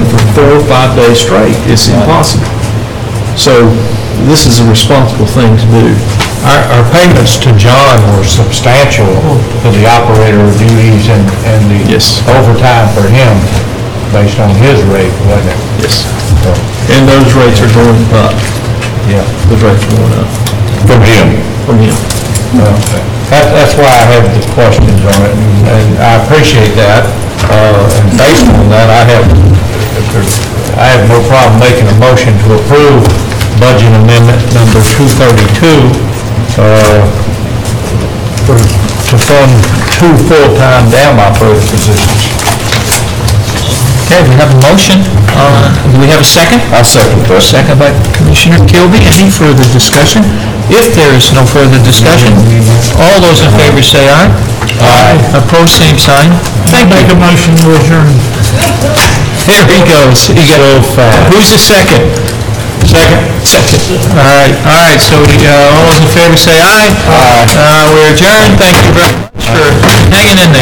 five days straight, it's impossible. So this is a responsible thing to do. Our, our payments to John were substantial for the operator duties and, and the Yes. overtime for him based on his rate, wasn't it? Yes. And those rates are going up, Yeah. those rates are going up From him. from him. That, that's why I have the questions on it, and- and I appreciate that. Uh, and based on that, I have, I have no problem making a motion to approve budget amendment number two thirty-two, uh, for, to fund two full-time dam operator positions. Okay, we have a motion. Uh, Do we have a second? I second that. Second by Commissioner Kilby. Any further discussion? If there is no further discussion, all those in favor say aye. Aye. Opposed, same sign. Thank you. Make a motion, adjourn. There he goes. He got, who's the second? Second. Second. All right, all right, so uh, all those in favor say aye. Aye. We're adjourned. Thank you very much for hanging in there.